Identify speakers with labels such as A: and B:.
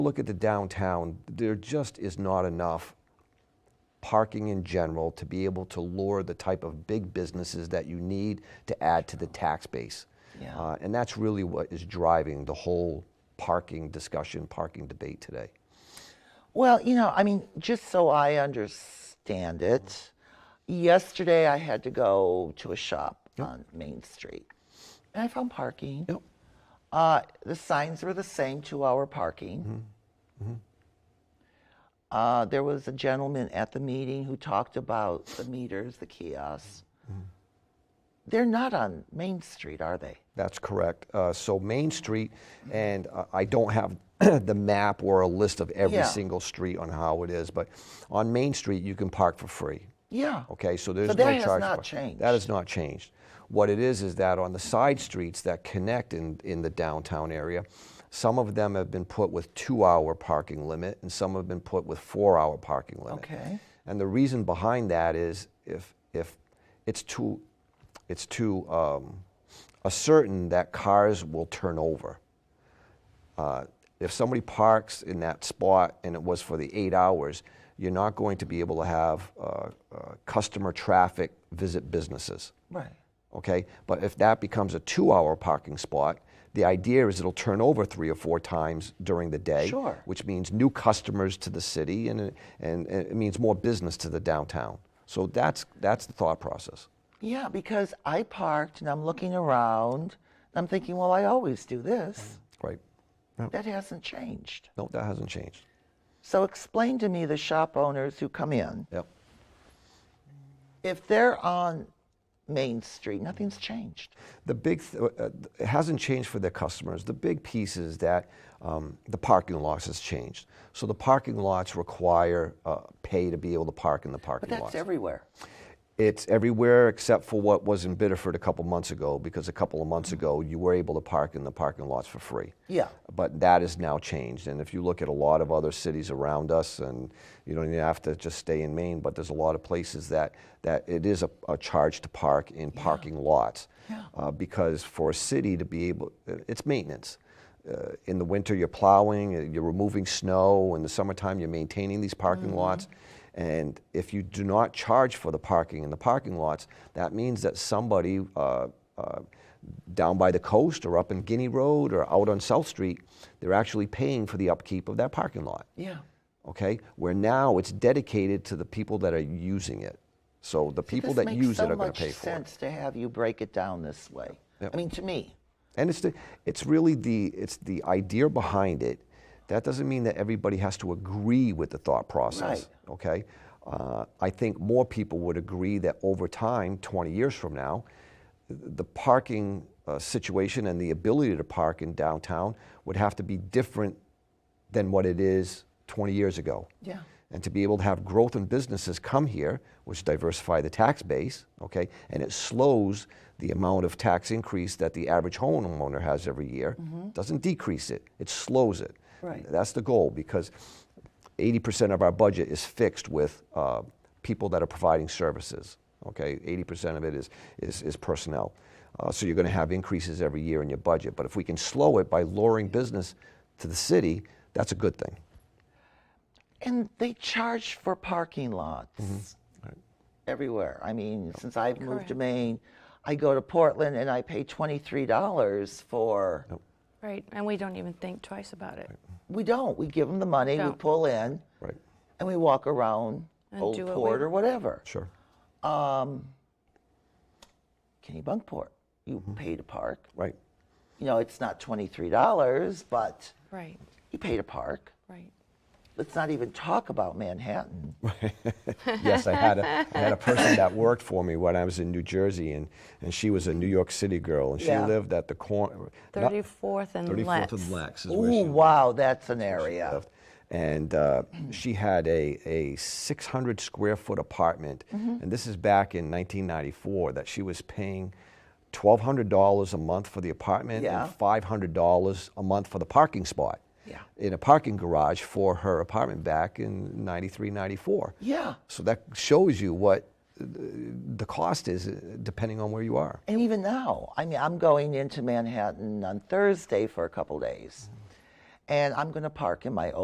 A: Look at the downtown, there just is not enough parking in general to be able to lure the type of big businesses that you need to add to the tax base.
B: Yeah.
A: Uh, and that's really what is driving the whole parking discussion, parking debate today.
B: Well, you know, I mean, just so I understand it, yesterday I had to go to a shop on Main Street and I found parking.
A: Yep.
B: Uh, the signs were the same two hour parking. Uh, there was a gentleman at the meeting who talked about the meters, the kiosks. They're not on Main Street, are they?
A: That's correct. Uh, so Main Street, and uh, I don't have the map or a list of every
B: Yeah.
A: single street on how it is, but on Main Street you can park for free.
B: Yeah.
A: Okay, so there's no
B: that
A: charge.
B: has not
A: for-
B: changed.
A: That has not changed. What it is is that on the side streets that connect in, in the downtown area, some of them have been put with two-hour parking limit, and some have been put with four-hour parking limit.
B: Okay.
A: And the reason behind that is if if it's too it's too um, certain that cars will turn over. Uh, if somebody parks in that spot and it was for the eight hours, you're not going to be able to have uh, uh, customer traffic visit businesses.
B: Right.
A: Okay, but if that becomes a two-hour parking spot, the idea is it'll turn over three or four times during the day,
B: Sure.
A: which means new customers to the city, and it- and and it means more business to the downtown. So that's that's the thought process.
B: Yeah, because I parked and I'm looking around and I'm thinking, well, I always do this.
A: Right.
B: That hasn't changed.
A: No, that hasn't changed.
B: So explain to me the shop owners who come in,
A: Yep.
B: if they're on Main Street, nothing's changed.
A: The big th- uh, it hasn't changed for their customers. The big piece is that um, the parking lots has changed. So the parking lots require uh, pay to be able to park in the parking
B: But that's
A: lots.
B: everywhere.
A: It's everywhere except for what was in Biddeford a couple months ago, because a couple of months ago you were able to park in the parking lots for free.
B: Yeah.
A: But that is now changed, and if you look at a lot of other cities around us, and you don't even have to just stay in Maine, but there's a lot of places that that it is a, a charge to park in parking lots,
B: Yeah.
A: uh, because for a city to be able, it's maintenance. Uh, in the winter, you're plowing, uh, you're removing snow. In the summertime, you're maintaining these parking
B: Mm-hmm.
A: lots. And if you do not charge for the parking in the parking lots, that means that somebody uh, uh, down by the coast or up in Guinea Road or out on South Street, they're actually paying for the upkeep of that parking lot.
B: Yeah.
A: Okay, where now it's dedicated to the people that are using it. So the people
B: This
A: that
B: makes
A: use
B: so
A: it are going
B: much
A: to pay for it.
B: sense to have you break it down this way.
A: Yep.
B: I mean, to me,
A: And it's the, it's really the it's the idea behind it. That doesn't mean that everybody has to agree with the thought process. Okay. Uh, I think more people would agree that over time, 20 years from now, th- the parking uh, situation and the ability to park in downtown would have to be different than what it is 20 years ago.
B: Yeah.
A: And to be able to have growth in businesses come here, which diversify the tax base, okay, and it slows the amount of tax increase that the average homeowner has every year. Doesn't decrease it; it slows it.
B: Right.
A: That's the goal because 80% of our budget is fixed with uh, people that are providing services. Okay, 80% of it is is, is personnel. Uh, so you're going to have increases every year in your budget. But if we can slow it by luring business to the city, that's a good thing.
B: and they charge for parking lots
C: Mm-hmm.
B: everywhere. I mean, since
C: Oh,
B: I've moved to Maine, I go to Portland and I pay $23 for.
C: Right, and we don't even think twice about it.
B: We don't. We give them the money, we
C: Don't.
B: pull in,
A: Right.
B: and we walk around
C: And
B: Old
C: do what we
B: Port or
C: want.
B: whatever. Um,
A: Sure.
B: Kennebunkport, you
C: Mm-hmm.
B: pay to park.
A: Right.
B: You know, it's not $23, but
C: Right,
B: you pay to park.
C: right.
B: Let's not even talk about Manhattan.
A: yes, I had a I had a person that worked for me when I was in New Jersey, and, and she was a New York City girl, and she
B: Yeah.
A: lived at the corner.
C: 34th and Lex.
A: Lex is
B: Ooh, wow, that's an area.
A: lived. And uh, she had a, a 600 square foot apartment,
B: Mm-hmm.
A: and this is back in 1994 that she was paying $1,200 a month for the apartment
B: Yeah.
A: and $500 a month for the parking spot
B: Yeah.
A: in a parking garage for her apartment back in 93, 94.
B: Yeah.
A: So that shows you what uh, the cost is uh, depending on where you are.
B: And even now, I mean, I'm going into Manhattan on Thursday for a couple days. and I'm going to park in my